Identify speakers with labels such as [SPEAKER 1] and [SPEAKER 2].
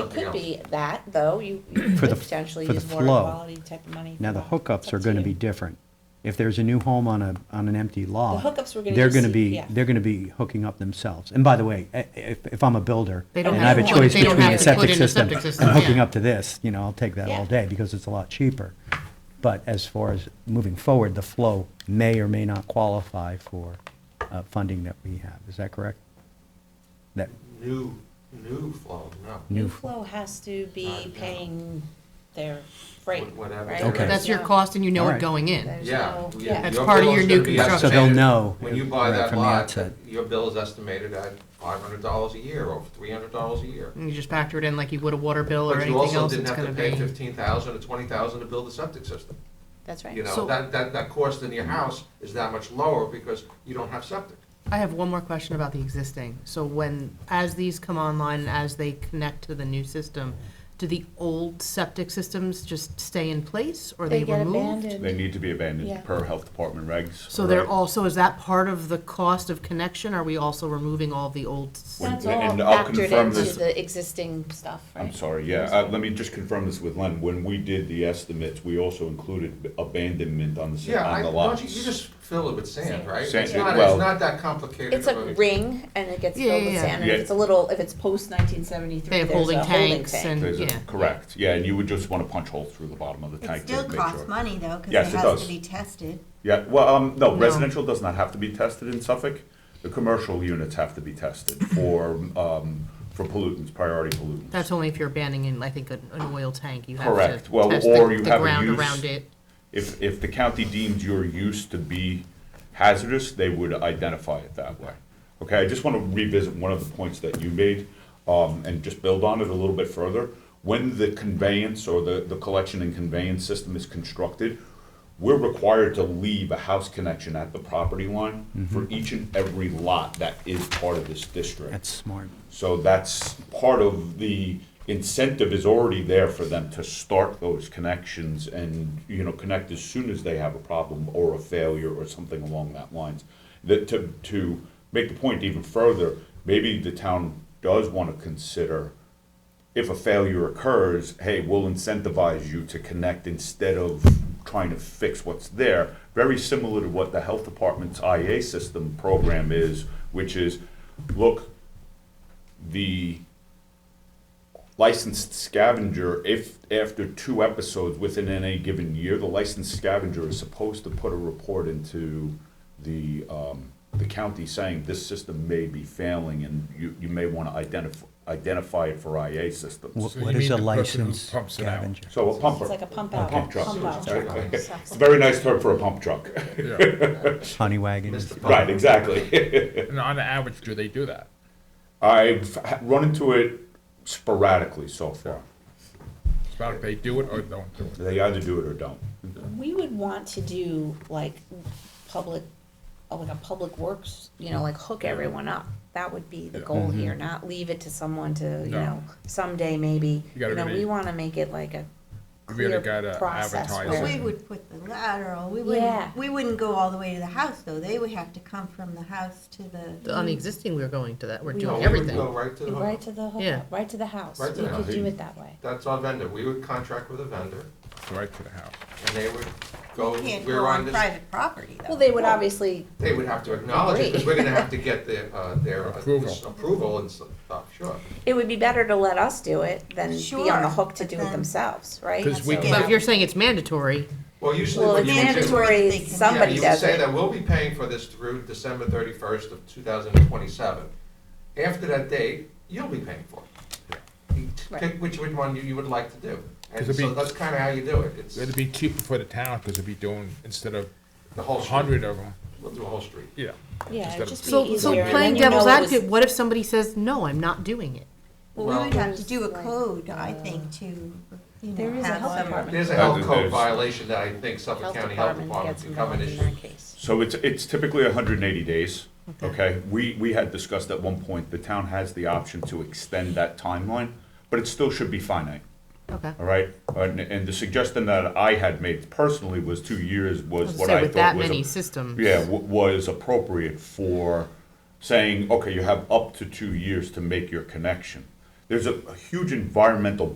[SPEAKER 1] It could be that, though, you you
[SPEAKER 2] For
[SPEAKER 1] could
[SPEAKER 2] the-
[SPEAKER 1] potentially
[SPEAKER 2] for the
[SPEAKER 1] use more
[SPEAKER 2] flow.
[SPEAKER 1] quality type of money.
[SPEAKER 2] Now,
[SPEAKER 1] for
[SPEAKER 2] the
[SPEAKER 1] that.
[SPEAKER 2] hookups
[SPEAKER 1] Up
[SPEAKER 2] are going to
[SPEAKER 1] you.
[SPEAKER 2] be different. If there's a new home on a, on an empty lot.
[SPEAKER 1] hookups we're gonna
[SPEAKER 2] They're
[SPEAKER 1] just
[SPEAKER 2] going to
[SPEAKER 1] see,
[SPEAKER 2] be,
[SPEAKER 1] yeah.
[SPEAKER 2] they're going to be hooking up themselves. And by the way, i- if, if I'm a builder
[SPEAKER 3] They
[SPEAKER 2] and
[SPEAKER 3] don't
[SPEAKER 2] I
[SPEAKER 3] have
[SPEAKER 2] have a
[SPEAKER 3] to put-
[SPEAKER 2] choice
[SPEAKER 3] they don't
[SPEAKER 2] between
[SPEAKER 3] have
[SPEAKER 2] a
[SPEAKER 3] to put
[SPEAKER 2] septic
[SPEAKER 3] in a
[SPEAKER 2] system
[SPEAKER 3] septic system,
[SPEAKER 2] and hooking
[SPEAKER 3] yeah.
[SPEAKER 2] up to this, you know, I'll take that
[SPEAKER 1] Yeah.
[SPEAKER 2] all day because it's a lot cheaper. But as far as moving forward, the flow may or may not qualify for uh, funding that we have. Is that correct? That,
[SPEAKER 4] New, new flow, no.
[SPEAKER 1] New
[SPEAKER 2] New-
[SPEAKER 1] flow has to be
[SPEAKER 4] Right.
[SPEAKER 1] paying their freight,
[SPEAKER 4] Wha- whatever
[SPEAKER 1] right?
[SPEAKER 4] their Okay.
[SPEAKER 3] That's your
[SPEAKER 1] Yeah.
[SPEAKER 3] cost and you know it
[SPEAKER 2] Alright.
[SPEAKER 3] going in.
[SPEAKER 1] There's
[SPEAKER 4] Yeah.
[SPEAKER 1] no-
[SPEAKER 4] you-
[SPEAKER 1] Yeah,
[SPEAKER 3] That's part of
[SPEAKER 4] bill is
[SPEAKER 3] your
[SPEAKER 4] gonna
[SPEAKER 3] new
[SPEAKER 4] be
[SPEAKER 3] construction. So
[SPEAKER 2] they'll
[SPEAKER 4] estimated-
[SPEAKER 2] know
[SPEAKER 4] When you buy
[SPEAKER 2] right
[SPEAKER 4] that
[SPEAKER 2] from the
[SPEAKER 4] lot,
[SPEAKER 2] outset.
[SPEAKER 4] your bill is estimated at five hundred dollars a year or three hundred dollars a year.
[SPEAKER 3] And you just factor it in like you would a water bill or
[SPEAKER 4] But you
[SPEAKER 3] anything
[SPEAKER 4] also
[SPEAKER 3] else
[SPEAKER 4] didn't
[SPEAKER 3] it's
[SPEAKER 4] have
[SPEAKER 3] gonna
[SPEAKER 4] to pay
[SPEAKER 3] be.
[SPEAKER 4] fifteen thousand or twenty thousand to build a septic system.
[SPEAKER 1] that's
[SPEAKER 4] You
[SPEAKER 1] right.
[SPEAKER 4] know,
[SPEAKER 3] So-
[SPEAKER 4] that, that, that cost in your house is that much lower because you don't have septic.
[SPEAKER 3] I have one more question about the existing. So when, as these come online, and as they connect to the new system, do the old septic systems just stay in place or are
[SPEAKER 1] They
[SPEAKER 3] they
[SPEAKER 1] get
[SPEAKER 3] removed?
[SPEAKER 1] abandoned.
[SPEAKER 5] They need to be
[SPEAKER 1] Yeah.
[SPEAKER 5] abandoned per health department regs.
[SPEAKER 3] So they're
[SPEAKER 5] right?
[SPEAKER 3] also, is that part of the cost of connection? Are we also removing all the old? s-
[SPEAKER 5] When-
[SPEAKER 1] That's all
[SPEAKER 5] and I'll
[SPEAKER 1] factored
[SPEAKER 5] confirm
[SPEAKER 1] into
[SPEAKER 5] this-
[SPEAKER 1] the existing stuff, right?
[SPEAKER 5] I'm sorry, yeah, uh, let me just confirm this with Len. When we did the estimates, we also included abandonment on the, si-
[SPEAKER 4] Yeah, I,
[SPEAKER 5] on the
[SPEAKER 4] don't
[SPEAKER 5] lots.
[SPEAKER 4] you, you just fill it with sand,
[SPEAKER 1] Sand.
[SPEAKER 4] right?
[SPEAKER 5] Sand,
[SPEAKER 4] It's not,
[SPEAKER 5] well-
[SPEAKER 4] it's not that complicated.
[SPEAKER 1] It's a
[SPEAKER 4] of
[SPEAKER 1] ring and it gets
[SPEAKER 3] Yeah,
[SPEAKER 1] filled
[SPEAKER 3] yeah,
[SPEAKER 1] with
[SPEAKER 3] yeah.
[SPEAKER 1] sand, and if
[SPEAKER 5] Yeah.
[SPEAKER 1] it's a little, if it's post nineteen
[SPEAKER 3] They
[SPEAKER 1] seventy-three,
[SPEAKER 3] have
[SPEAKER 1] there's
[SPEAKER 3] holding
[SPEAKER 1] a holding
[SPEAKER 3] tanks
[SPEAKER 1] tank.
[SPEAKER 3] and,
[SPEAKER 5] There's a-
[SPEAKER 3] yeah.
[SPEAKER 5] Correct, yeah, and you would just wanna punch holes through the bottom of the
[SPEAKER 6] It
[SPEAKER 5] tank
[SPEAKER 6] still
[SPEAKER 5] to make
[SPEAKER 6] costs
[SPEAKER 5] sure.
[SPEAKER 6] money though, because
[SPEAKER 5] Yes,
[SPEAKER 6] it
[SPEAKER 5] it
[SPEAKER 6] has
[SPEAKER 5] does.
[SPEAKER 6] to be tested.
[SPEAKER 5] Yeah, well, um, no,
[SPEAKER 3] No.
[SPEAKER 5] residential does not have to be tested in Suffolk. The commercial units have to be tested for, um, for pollutants, priority pollutants.
[SPEAKER 3] That's only if you're abandoning, I think, an an oil tank. You have to
[SPEAKER 5] Correct.
[SPEAKER 3] test
[SPEAKER 5] Well, or
[SPEAKER 3] the
[SPEAKER 5] you
[SPEAKER 3] the
[SPEAKER 5] have a
[SPEAKER 3] ground
[SPEAKER 5] use-
[SPEAKER 3] around it.
[SPEAKER 5] If, if the county deems your use to be hazardous, they would identify it that way. Okay, I just want to revisit one of the points that you made, um, and just build on it a little bit further. When the conveyance or the, the collection and conveyance system is constructed, we're required to leave a house connection at the property line for each and every lot that is part of this district.
[SPEAKER 2] that's smart.
[SPEAKER 5] So that's part of the incentive is already there for them to start those connections and, you know, connect as soon as they have a problem or a failure or something along that lines. That to, to make the point even further, maybe the town does want to consider if a failure occurs, hey, we'll incentivize you to connect instead of trying to fix what's there. Very similar to what the health department's IA system program is, which is, look, the licensed scavenger, if after two episodes within any given year, the licensed scavenger is supposed to put a report into the, um, the county saying this system may be failing and you, you may wanna identify, identify it for IA systems.
[SPEAKER 2] What is a licensed scavenger?
[SPEAKER 5] So a pumper.
[SPEAKER 1] It's like a pump out.
[SPEAKER 5] pump truck.
[SPEAKER 1] Pump out.
[SPEAKER 5] It's a very nice term for a pump truck.
[SPEAKER 2] Honey wagon? is-
[SPEAKER 4] Mr. Pump.
[SPEAKER 5] Right, exactly.
[SPEAKER 7] And on average, do they do that?
[SPEAKER 5] I've h- run into it sporadically so far.
[SPEAKER 7] It's about if they do it or don't do it.
[SPEAKER 5] They either do it or don't.
[SPEAKER 1] We would want to do like public, uh, like a public works, you know, like hook everyone up. That would be the goal
[SPEAKER 4] Mm-hmm.
[SPEAKER 1] here, not leave it to someone to, you
[SPEAKER 7] No.
[SPEAKER 1] know, someday maybe.
[SPEAKER 7] You gotta
[SPEAKER 1] You know, we
[SPEAKER 7] really-
[SPEAKER 1] wanna make it like a
[SPEAKER 7] You really
[SPEAKER 1] clear
[SPEAKER 7] gotta
[SPEAKER 1] process where-
[SPEAKER 7] advertise it.
[SPEAKER 6] We would put the lateral, we
[SPEAKER 1] Yeah.
[SPEAKER 6] wouldn't, we wouldn't go all the way to the house though. They would have to come from the house to the.
[SPEAKER 3] On the existing, we're going to that. We're
[SPEAKER 1] We
[SPEAKER 3] doing
[SPEAKER 1] are.
[SPEAKER 4] No, we would
[SPEAKER 3] everything.
[SPEAKER 4] go right to the
[SPEAKER 1] Right
[SPEAKER 4] hookup.
[SPEAKER 1] to the
[SPEAKER 3] Yeah.
[SPEAKER 1] hook, right to the house. We
[SPEAKER 4] Right to the
[SPEAKER 1] could
[SPEAKER 5] house.
[SPEAKER 1] do it that way.
[SPEAKER 4] That's our vendor. We would contract with a vendor
[SPEAKER 7] It's right to the house.
[SPEAKER 4] and they would go,
[SPEAKER 6] You can't
[SPEAKER 4] we're
[SPEAKER 6] go
[SPEAKER 4] on
[SPEAKER 6] on
[SPEAKER 4] this
[SPEAKER 6] private property though.
[SPEAKER 1] Well, they would obviously,
[SPEAKER 4] They would have to acknowledge it, because we're gonna have to get their, uh, their uh,
[SPEAKER 7] Approval.
[SPEAKER 4] this approval and stuff, uh, sure.
[SPEAKER 1] it would be better to let us do it than be on
[SPEAKER 6] Sure,
[SPEAKER 1] the hook to
[SPEAKER 6] but
[SPEAKER 1] do it
[SPEAKER 6] then-
[SPEAKER 1] themselves, right?
[SPEAKER 7] 'Cause we
[SPEAKER 1] So-
[SPEAKER 7] can-
[SPEAKER 3] But if you're saying it's mandatory,
[SPEAKER 4] Well, usually
[SPEAKER 1] Well,
[SPEAKER 4] what
[SPEAKER 1] it's
[SPEAKER 4] you would do.
[SPEAKER 6] mandatory,
[SPEAKER 1] mandatory,
[SPEAKER 6] Yeah, you
[SPEAKER 4] Yeah,
[SPEAKER 1] somebody
[SPEAKER 4] you would
[SPEAKER 1] does
[SPEAKER 4] say
[SPEAKER 1] it.
[SPEAKER 4] that we'll be paying for this through December thirty-first of two thousand and twenty-seven. After that date, you'll be paying for it. You t-
[SPEAKER 1] Right.
[SPEAKER 4] Pick which which one you, you would like to do. And
[SPEAKER 7] It'd
[SPEAKER 4] so
[SPEAKER 7] be-
[SPEAKER 4] that's kinda how you do it. It's
[SPEAKER 7] It'd be cheaper for the town because it'd be doing, instead of
[SPEAKER 4] the
[SPEAKER 7] a
[SPEAKER 4] whole street.
[SPEAKER 7] hundred of them,
[SPEAKER 4] We'll do a whole street.
[SPEAKER 7] yeah.
[SPEAKER 1] Yeah,
[SPEAKER 7] Instead
[SPEAKER 1] it'd
[SPEAKER 7] of-
[SPEAKER 1] just be
[SPEAKER 3] so, so
[SPEAKER 1] easier, and
[SPEAKER 3] playing
[SPEAKER 1] then you know
[SPEAKER 3] devil's
[SPEAKER 1] it was-
[SPEAKER 3] advocate, what if somebody says, no, I'm not doing it?
[SPEAKER 6] Well, we would have to do a
[SPEAKER 1] Well, uh,
[SPEAKER 6] code, I think, to, you
[SPEAKER 1] There
[SPEAKER 6] know,
[SPEAKER 1] is a
[SPEAKER 6] have
[SPEAKER 1] health
[SPEAKER 6] some.
[SPEAKER 1] department.
[SPEAKER 4] There's a
[SPEAKER 5] Well,
[SPEAKER 4] health code
[SPEAKER 5] there's-
[SPEAKER 4] violation that I think Suffolk
[SPEAKER 1] Health
[SPEAKER 4] County Health
[SPEAKER 1] Department
[SPEAKER 4] Department
[SPEAKER 1] gets
[SPEAKER 4] could come
[SPEAKER 1] involved
[SPEAKER 4] and
[SPEAKER 1] in
[SPEAKER 4] issue.
[SPEAKER 1] that case.
[SPEAKER 5] So it's, it's typically hundred and eighty days, okay? We, we had discussed at one point, the town has the option to extend that timeline, but it still should be finite,
[SPEAKER 3] Okay.
[SPEAKER 5] all right? And, and the suggestion that I had made personally was two years was
[SPEAKER 3] Let's
[SPEAKER 5] what
[SPEAKER 3] say
[SPEAKER 5] I
[SPEAKER 3] with
[SPEAKER 5] thought
[SPEAKER 3] that
[SPEAKER 5] was. a-
[SPEAKER 3] many systems.
[SPEAKER 5] Yeah, wa- was appropriate for saying, okay, you have up to two years to make your connection. there's a a huge environmental